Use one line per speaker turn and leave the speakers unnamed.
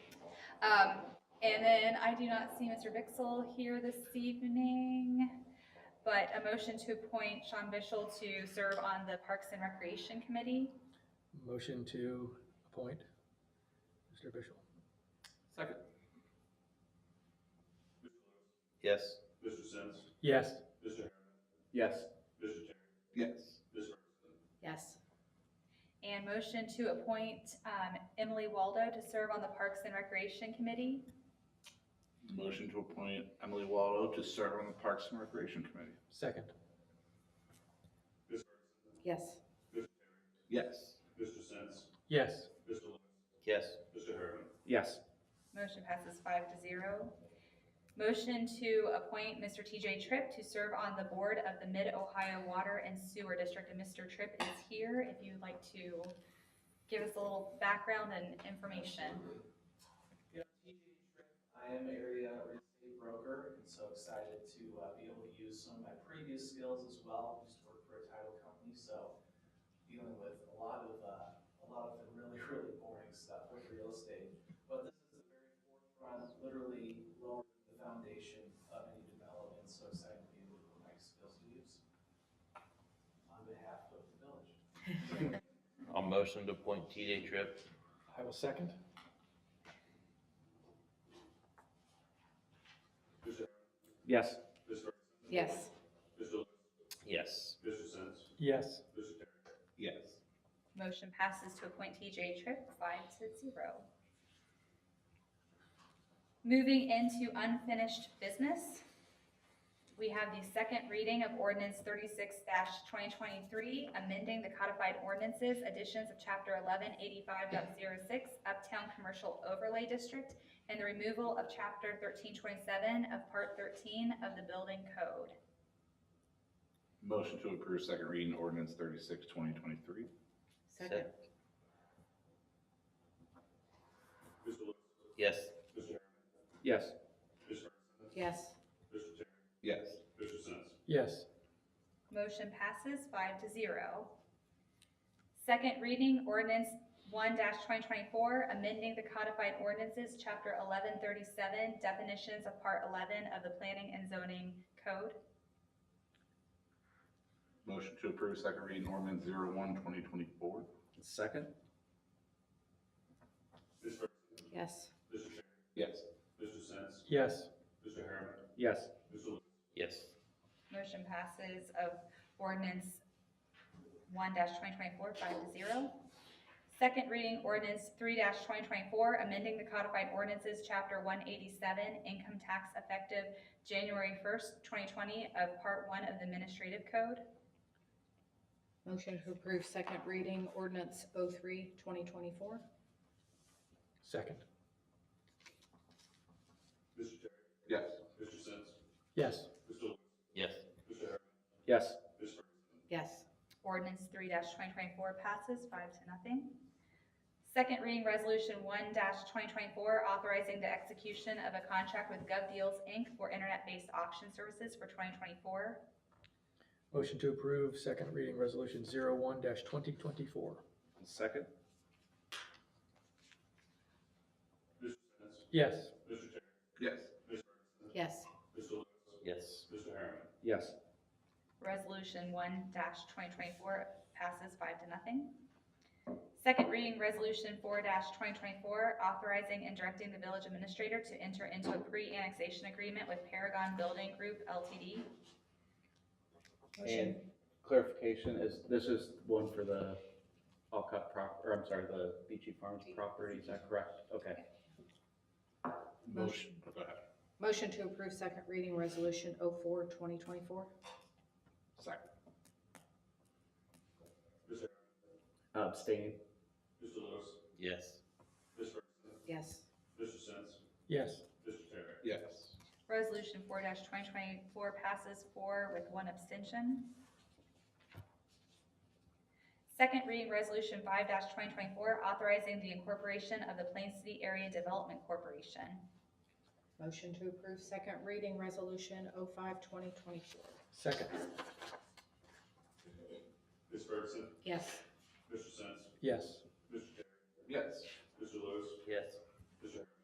Um, and then I do not see Mr. Bixel here this evening, but a motion to appoint Sean Bishel to serve on the Parks and Recreation Committee.
Motion to appoint Mr. Bishel.
Second.
Yes.
Mr. Sims,
Yes.
Mr. Herron,
Yes.
Mr. Terry,
Yes.
Mr.
Yes.
And motion to appoint, um, Emily Waldo to serve on the Parks and Recreation Committee.
Motion to appoint Emily Waldo to serve on the Parks and Recreation Committee.
Second.
Yes.
Yes.
Mr. Sims,
Yes.
Mr. Lewis,
Yes.
Mr. Herron,
Yes.
Motion passes five to zero. Motion to appoint Mr. TJ Tripp to serve on the board of the Mid-Ohio Water and Sewer District. And Mr. Tripp is here if you'd like to give us a little background and information.
Yeah, TJ Tripp, I am area real estate broker, and so excited to uh, be able to use some of my previous skills as well. Used to work for a title company, so dealing with a lot of, uh, a lot of the really, really boring stuff with real estate. But this is the very forefront, literally lower the foundation of any development, so excited to be able to put my skills to use on behalf of the village.
I'll motion to appoint TJ Tripp.
I will second.
Yes.
Mr. Ferguson,
Yes.
Mr. Lewis,
Yes.
Mr. Sims,
Yes.
Mr. Terry,
Yes.
Motion passes to appoint TJ Tripp, five to zero. Moving into unfinished business, we have the second reading of ordinance thirty-six twenty twenty-three, amending the codified ordinances, additions of chapter 1185.06, Uptown Commercial Overlay District, and the removal of chapter thirteen twenty-seven of part thirteen of the building code.
Motion to approve second reading ordinance thirty-six, twenty twenty-three.
Second.
Mr. Lewis,
Yes.
Mr. Herron,
Yes.
Mr.
Yes.
Ferguson, Mr. Terry,
Yes.
Mr. Sims,
Yes.
Motion passes five to zero. Second reading ordinance one twenty twenty-four, amending the codified ordinances, chapter eleven thirty-seven, definitions of part eleven of the planning and zoning code.
Motion to approve second reading ordinance zero one, twenty twenty-four.
Second.
Ms. Ferguson,
Yes.
Mr. Terry,
Yes.
Mr. Sims,
Yes.
Mr. Herron,
Yes.
Mr. Lewis,
Yes.
Motion passes of ordinance one twenty twenty-four, five to zero. Second reading ordinance three twenty twenty-four, amending the codified ordinances, chapter one eighty-seven, income tax effective January first, twenty twenty, of part one of the administrative code.
Motion to approve second reading ordinance 03, 2024.
Second.
Mr. Terry,
Yes.
Mr. Sims,
Yes.
Mr. Lewis,
Yes.
Mr. Herron,
Yes.
Ms. Ferguson,
Yes.
Ordinance three twenty twenty-four passes five to nothing. Second reading resolution one twenty twenty-four, authorizing the execution of a contract with GovDeals Inc. for internet-based auction services for twenty twenty-four.
Motion to approve second reading resolution zero one dash twenty twenty-four.
Second.
Mr. Sims,
Yes.
Mr. Terry,
Yes.
Ms.
Yes.
Ferguson, Mr. Lewis,
Yes.
Mr. Herron,
Yes.
Resolution one twenty twenty-four passes five to nothing. Second reading, resolution four twenty twenty-four, authorizing and directing the village administrator to enter into a pre-annexation agreement with Paragon Building Group LTD.
And clarification is, this is one for the Alcott prop, or I'm sorry, the Beachy Farms property, is that correct? Okay.
Motion. Go ahead.
Motion to approve second reading resolution 04, 2024.
Second.
Mr. Herron,
Abstain.
Mr. Lewis,
Yes.
Ms. Ferguson,
Yes.
Mr. Sims,
Yes.
Mr. Terry,
Yes.
Resolution four twenty twenty-four passes four with one abstention. Second reading, resolution five twenty twenty-four, authorizing the incorporation of the Plain City Area Development Corporation.
Motion to approve second reading resolution 05, 2024.
Second.
Ms. Ferguson,
Yes.
Mr. Sims,
Yes.
Mr. Terry,
Yes.
Mr. Lewis,
Yes.